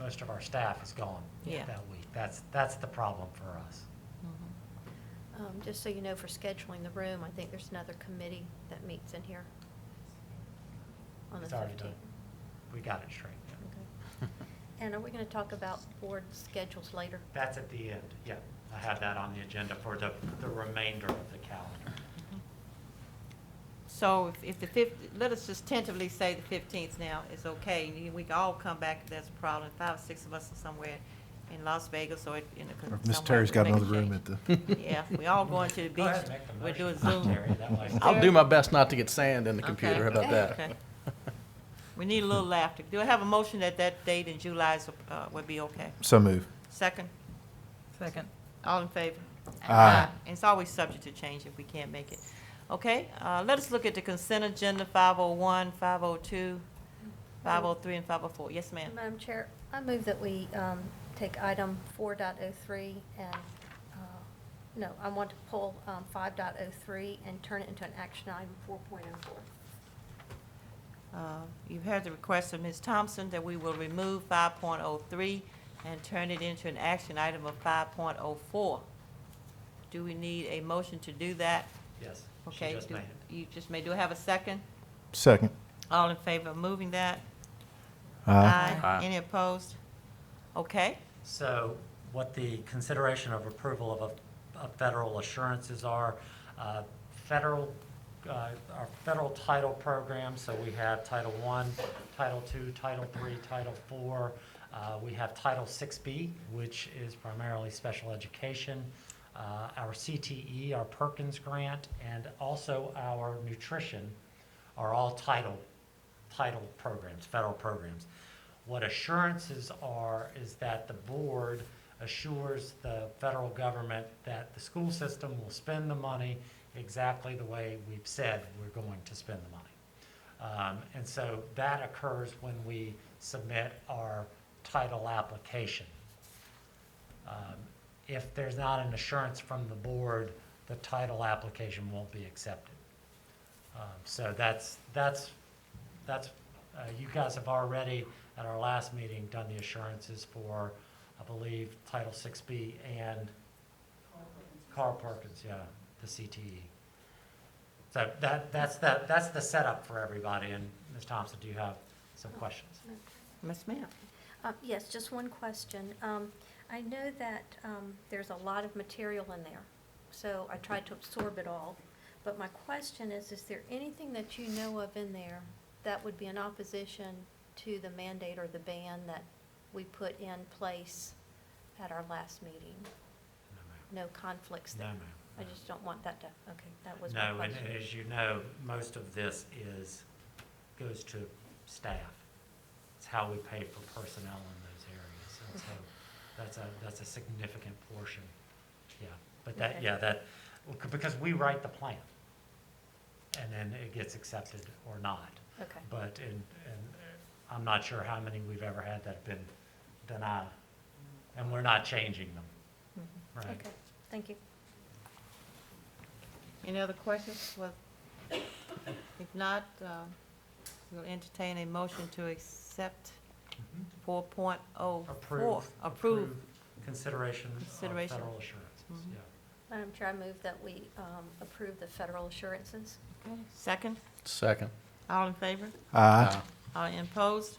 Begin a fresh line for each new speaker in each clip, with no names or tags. most of our staff is gone
Yeah.
that week. That's, that's the problem for us.
Um, Just so you know, for scheduling the room, I think there's another committee that meets in here on the
It's already done.
15th.
We got it straight. yeah.
And are we going to talk about board schedules later?
That's at the end, yeah. I had that on the agenda for the, the remainder of the calendar.
So if- if the fif, let us just tentatively say the fifteenth now is okay, and then we can all come back if there's a problem, five, six of us are somewhere in Las Vegas or in a.
Or if
somewhere,
Miss Terry's
we
got
make a
another room at
change.
the.
Yeah, we all going to the
Go ahead,
beach,
make the
we're doing
motion, Terry,
Zoom.
that way.
I'll
I'll
do
do my best not to get sand in the
Okay.
computer, how about
Okay.
that?
We need a little laughter. Do I have a motion that that date in July is, uh, would be okay?
So move.
Second,
Second.
all in favor?
Aye.
And It's always subject to change if we can't make it. Okay, uh, let us look at the consent agenda, 501, 502, 503, and 504. Yes, ma'am?
Madam Chair, I move that we um, take item 4.03 and, uh, no, I want to pull um, 5.03 and turn it into an action item 4.04.
Uh, You've heard the request of Ms. Thompson that we will remove 5.03 and turn it into an action item of 5.04. Do we need a motion to do that?
Yes, she
Okay,
just
do-
made it.
you just may, do I have a second?
Second.
All in favor of moving that?
Aye.
Aye.
Any opposed? Okay,
So what the consideration of approval of, a- of federal assurances are, uh, federal, uh, our federal title program, so we have Title I, Title II, Title III, Title IV. Uh, We have Title VI-B, which is primarily special education, uh, our CTE, our Perkins Grant, and also our nutrition are all title title programs, federal programs. What assurances are is that the board assures the federal government that the school system will spend the money exactly the way we've said we're going to spend the money. Um, and so that occurs when we submit our title application. Um, If there's not an assurance from the board, the title application won't be accepted. Um, So that's, that's, that's, uh, you guys have already, at our last meeting, done the assurances for, I believe, Title 6B and Carl Perkins, yeah, the CTE. So that, that's, that, that's the setup for everybody, and Ms. Thompson, do you have some questions?
Ms. Ma'am?
Um, Yes, just one question. Um, I know that um, there's a lot of material in there, so I tried to absorb it all. But my question is, is there anything that you know of in there that would be in opposition to the mandate or the ban that we put in place at our last meeting?
No, ma'am.
No conflicts
No,
there?
ma'am.
I just don't want that to, okay, that was my
No, and
question.
as you know, most of this is, goes to staff. It's how we pay for personnel in those areas, and so that's a, that's a significant portion, yeah. But that,
Okay.
yeah, that, because we write the plan, and then it gets accepted or not.
Okay,
But, and, and I'm not sure how many we've ever had that have been denied, and we're not changing them,
Mm-hmm.
right?
okay, thank you.
Any other questions? Well, If not, uh, we'll entertain a motion to accept
Mhm.
4.04.
Approve.
Approve.
Consideration of
Consideration.
federal assurance,
Mhm.
yeah.
Madam Chair, I move that we um, approve the federal assurances.
Okay. Second,
Second. Uh,
all in favor?
Aye.
All in opposed?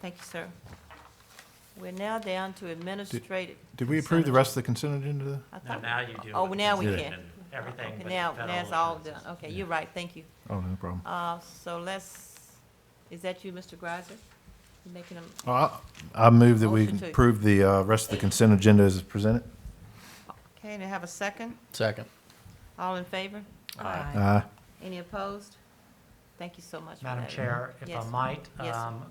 Thank you, sir. We're now down to administrative.
Did we approve the rest of the consent agenda?
I
Now,
thought-
now you do.
Oh,
it.
now we
Yeah.
can.
Everything
Okay,
but
Now,
federal
now it's all done.
assurances.
Okay, you're right, thank you.
Oh, no problem.
Uh, so let's, is that you, Mr. Greiser? You Making them,
Well, I I move that we
Motion to-
approve the uh, rest of the consent agenda as presented.
okay, and I have a second?
Second.
All in favor?
Aye.
Any opposed? Thank you so much for that.
Madam Chair, if I
Yes.
might,
Yes.
um,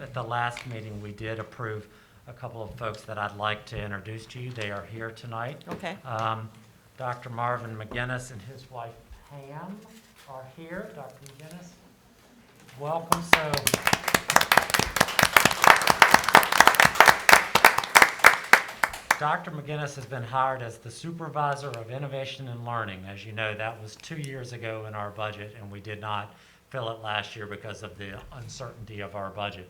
at the last meeting, we did approve a couple of folks that I'd like to introduce to you. They are here tonight.
Okay,
Um, Dr. Marvin McGinnis and his wife Pam are here. Dr. McGinnis, welcome. So, Dr. McGinnis has been hired as the Supervisor of Innovation and Learning. As you know, that was two years ago in our budget, and we did not fill it last year because of the uncertainty of our budget.